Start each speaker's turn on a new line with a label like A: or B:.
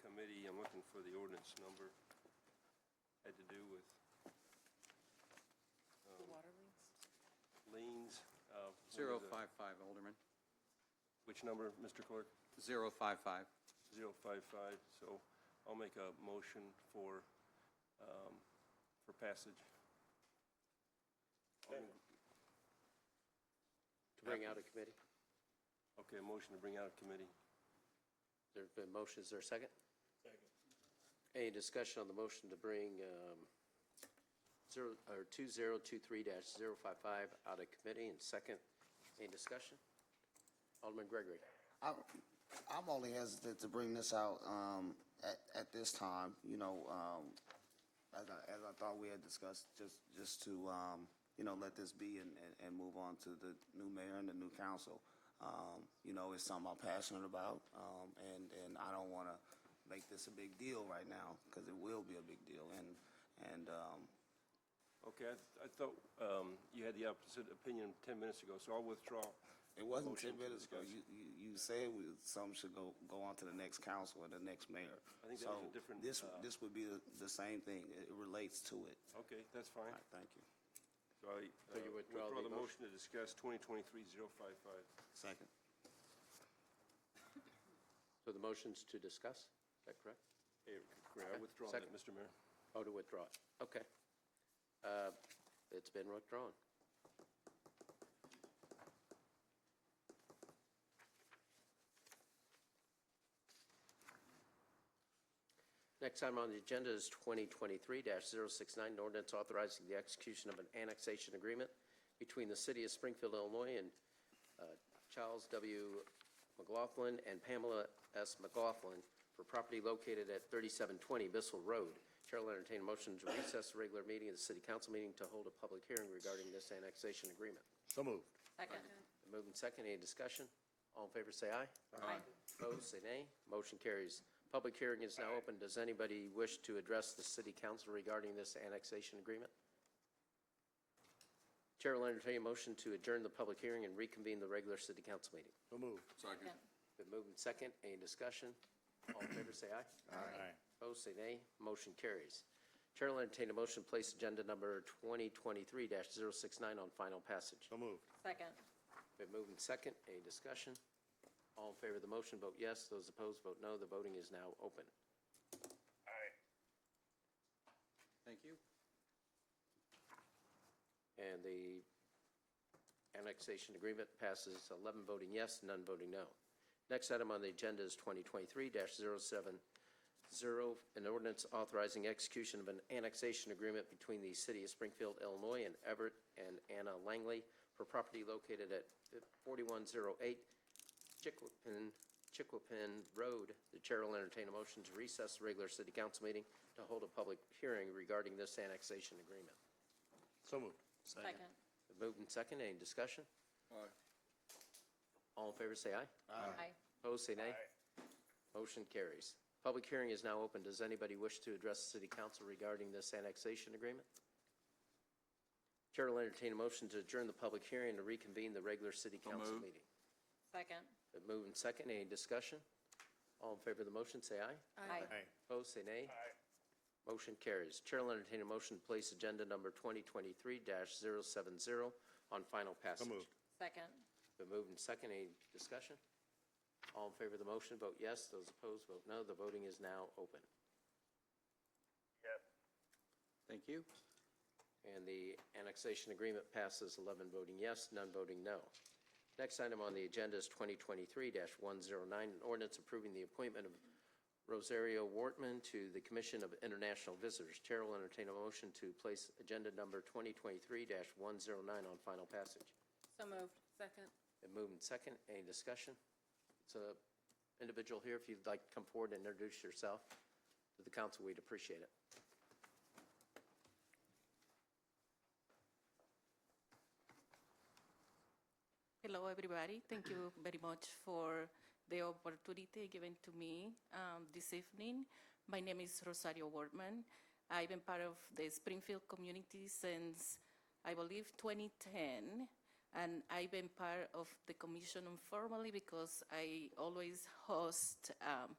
A: committee, I'm looking for the ordinance number, had to do with
B: The water leaks?
A: liens. uh, what
C: Zero
A: was it?
C: five five, Alderman.
A: Which number, Mr. Clerk?
C: Zero five five.
A: 055, so I'll make a motion for, um, for passage.
D: To bring out a committee?
A: Okay, a motion to bring out of committee.
D: There've been motions, is there a second? Second. Any discussion on the motion to bring um, zero, or 2023-055 out of committee and second? Any discussion? Alderman Gregory,
E: I'm, I'm only hesitant to bring this out, um, at, at this time, you know, um, as I, as I thought we had discussed, just, just to, um, you know, let this be and, and, and move on to the new mayor and the new council. Um, you know, it's something I'm passionate about, um, and, and I don't wanna make this a big deal right now, cause it will be a big deal, and, and, um,
A: Okay, I th- I thought um, you had the opposite opinion 10 minutes ago, so I'll withdraw.
E: It wasn't
A: Motion
E: ten
A: to
E: minutes ago.
A: discuss.
E: You, you, you said we, some should go, go on to the next council or the next mayor.
A: I think that
E: So
A: was a different,
E: This,
A: uh,
E: this would be the, the same thing. It relates to it.
A: Okay, that's fine.
E: All right, thank you.
A: So I
D: So you
A: uh,
D: withdraw the
A: the motion to
D: motion?
A: discuss 2023-055.
E: Second.
D: so the motion's to discuss, is that correct?
A: Hey, Greer, I
D: Okay,
A: withdraw that,
D: second.
A: Mr. Mayor.
D: Oh, to withdraw it, okay. Uh, It's been withdrawn. Next item on the agenda is 2023-069, an ordinance authorizing the execution of an annexation agreement between the City of Springfield, Illinois and uh, Charles W. McLaughlin and Pamela S. McLaughlin for property located at 3720 Bissell Road. Chair will entertain a motion to recess the regular meeting of the City Council meeting to hold a public hearing regarding this annexation agreement.
F: So moved.
B: Second.
D: Moving second, any discussion? All in favor, say aye.
B: Aye.
D: Opposed, say nay. Motion carries. Public hearing is now open. Does anybody wish to address the city council regarding this annexation agreement? Chair will entertain a motion to adjourn the public hearing and reconvene the regular city council meeting.
F: So moved.
B: Second.
D: Been moved and second, any discussion? All in favor, say aye.
F: Aye.
D: Opposed, say nay. Motion carries. Chair will entertain a motion to place agenda number 2023-069 on final passage.
F: So moved.
B: Second.
D: Been moved and second, any discussion? All in favor of the motion, vote yes. Those opposed, vote no. The voting is now open.
C: Thank you.
D: And the annexation agreement passes 11 voting yes, none voting no. Next item on the agenda is 2023-070, an ordinance authorizing execution of an annexation agreement between the City of Springfield, Illinois, and Everett and Anna Langley for property located at 4108 Chiquapin, Chiquapin Road. The chair will entertain a motion to recess the regular city council meeting to hold a public hearing regarding this annexation agreement.
F: So moved.
B: Second.
D: Moved and second, any discussion? All in favor, say aye.
B: Aye.
D: Opposed, say nay. Motion carries. Public hearing is now open. Does anybody wish to address the city council regarding this annexation agreement? Chair will entertain a motion to adjourn the public hearing and reconvene the regular city council meeting.
B: Second.
D: Been moved and second, any discussion? All in favor of the motion, say aye.
B: Aye.
F: Aye.
D: Opposed, say nay. Motion carries. Chair will entertain a motion to place agenda number 2023-070 on final
F: So
D: passage.
F: moved.
B: Second.
D: Been moved and second. Any discussion? All in favor of the motion, vote yes. Those opposed, vote no. The voting is now open.
C: Thank you.
D: And the annexation agreement passes 11 voting yes, none voting no. Next item on the agenda is 2023-109, an ordinance approving the appointment of Rosario Wortman to the Commission of International Visitors. Chair will entertain a motion to place agenda number 2023-109 on final passage.
B: So moved. Second.
D: Been moved and second. Any discussion? It's a individual here. If you'd like to come forward and introduce yourself to the council, we'd appreciate it.
G: Hello, everybody. Thank you very much for the opportunity given to me um, this evening. My name is Rosario Wortman. I've been part of the Springfield community since, I believe, 2010. And I've been part of the commission informally because I always host um,